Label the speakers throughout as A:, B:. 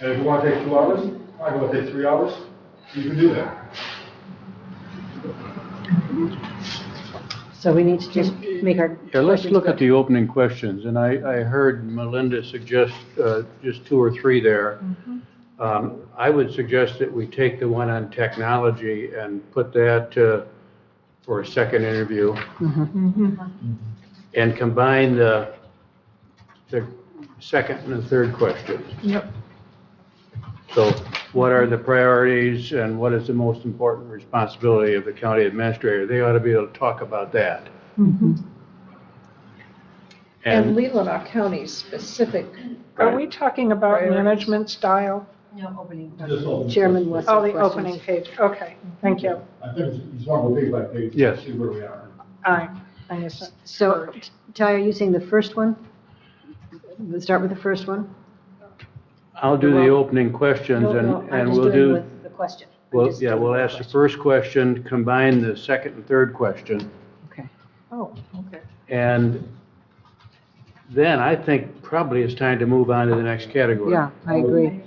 A: And if you want to take two hours, I want to take three hours, you can do that.
B: So we need to just make our.
C: Yeah, let's look at
B: questions
C: the opening questions, and I, I heard Melinda suggest uh, just two or three there. Um, I would suggest that we take the one on technology and put that uh, for a second interview. And combine the, the second and the third questions.
D: Yep.
C: So what are the priorities and what is the most important responsibility of the county administrator? They ought to be able to talk about that.
B: Mm-hmm.
D: And Leelanau County specific. Are we talking about
B: Priorities.
D: management style?
E: No, opening.
A: Just open
B: good.
A: the-
B: Chairman Wessel.
D: Oh, the
B: questions.
D: opening page, okay, thank you.
A: I think it's- it's one of the big like pages.
C: Yes.
A: See where we are.
D: Aye, I guess,
B: So, Ty, are you saying the first one? Let's start with the first one?
C: I'll do the
B: Well-
C: opening questions
B: No, no,
C: and,
B: I'm
C: and
B: just
C: we'll
B: doing
C: do,
B: with The question. I'm
C: well,
B: just
C: yeah,
B: doing
C: we'll
B: the
C: ask the
B: question.
C: first question, combine the second and third question.
B: Okay.
D: oh, okay.
C: And then I think probably it's time to move on to the next category.
B: Yeah, I agree.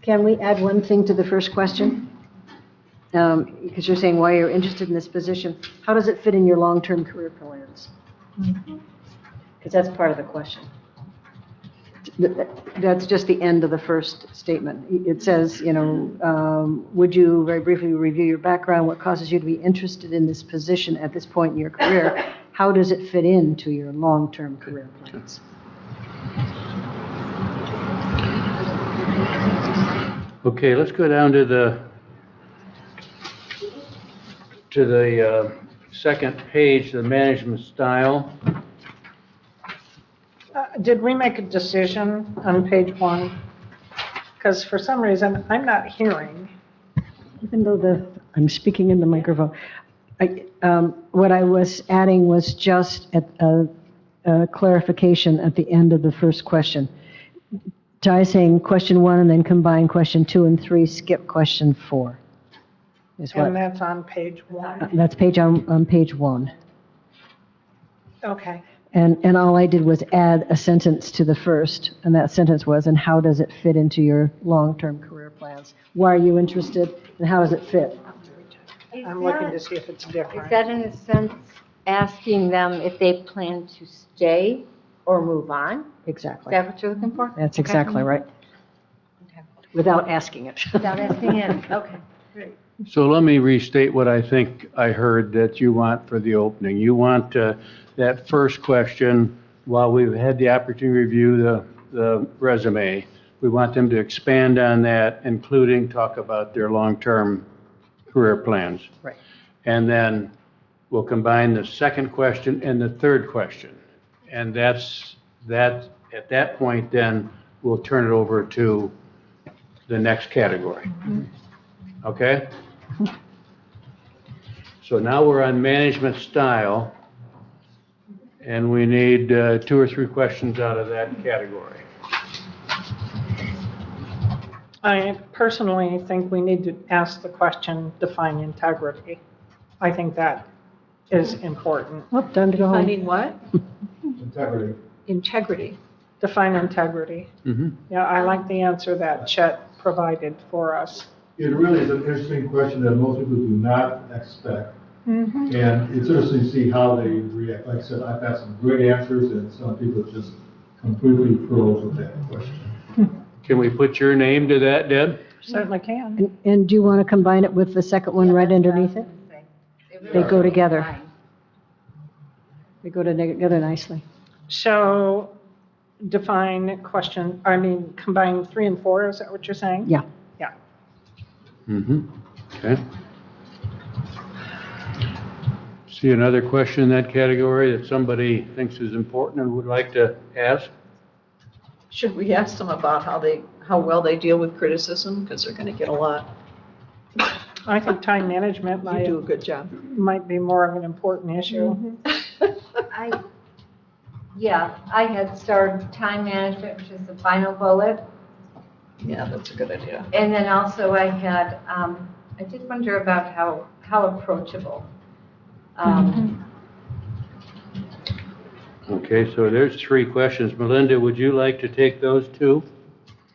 B: Can we add one thing to the first question? Um, Because you're saying why you're interested in this position. How does it fit in your long-term career plans? Because that's part of the question. Th- th- That's just the end of the first statement. I- It says, you know, um, would you very briefly review your background, what causes you to be interested in this position at this point in your career? How does it fit into your long-term career plans?
C: Okay, let's go down to the, to the uh, second page, the management style.
D: Uh, Did we make a decision on page one? Because for some reason, I'm not hearing.
B: Even though the, I'm speaking in the microphone, I, um, what I was adding was just at, a a clarification at the end of the first question. Ty saying question one and then combine question two and three, skip question four. Is
D: And
B: what, uh,
D: that's on page one.
B: that's page on, on page one.
D: Okay,
B: And, and all I did was add a sentence to the first, and that sentence was, and how does it fit into your long-term career plans? Why are you interested, and how does it fit?
D: I'm looking to see if it's different.
E: Is that in a sense asking them if they plan to stay or move on? Is
B: Exactly.
E: that what you're looking for?
B: That's exactly right.
E: Okay.
B: Without asking it.
E: Without asking it, okay.
C: So let me restate what I think I heard that you want for the opening. You want uh, that first question, while we've had the opportunity to review the the resume, we want them to expand on that, including talk about their long-term career plans.
B: Right.
C: And then we'll combine the second question and the third question. And that's, that, at that point, then, we'll turn it over to the next category. Okay? So now we're on management style, and we need uh, two or three questions out of that category.
D: I personally think we need to ask the question, define integrity. I think that is important.
B: Well, time to go home.
F: Finding what?
A: Integrity.
F: Integrity.
D: Define integrity.
C: Mhm.
D: Yeah, I like the answer that Chet provided for us.
A: It really is an interesting question that most people do not expect. And it's interesting to see how they react. Like I said, I've had some great answers and some people just completely froze with that question.
C: Can we put your name to that, Deb?
D: Certainly can.
B: And- And do you want to combine it with the second one right underneath it? They go together. They go together nicely.
D: So define question, I mean, combine three and four, is that what you're saying?
B: Yeah.
D: Yeah.
C: Mm-hmm. Okay. See another question in that category that somebody thinks is important and would like to ask?
F: Should we ask them about how they, how well they deal with criticism? Because they're going to get a lot.
D: I think time management
F: You
D: might,
F: do a good job.
D: might be more of an important issue.
E: I, yeah, I had started time management, which is the final bullet.
F: Yeah, that's a good idea.
E: And then also I had, um, I did wonder about how, how approachable. Um,
C: Okay, so there's three questions. Melinda, would you like to take those two?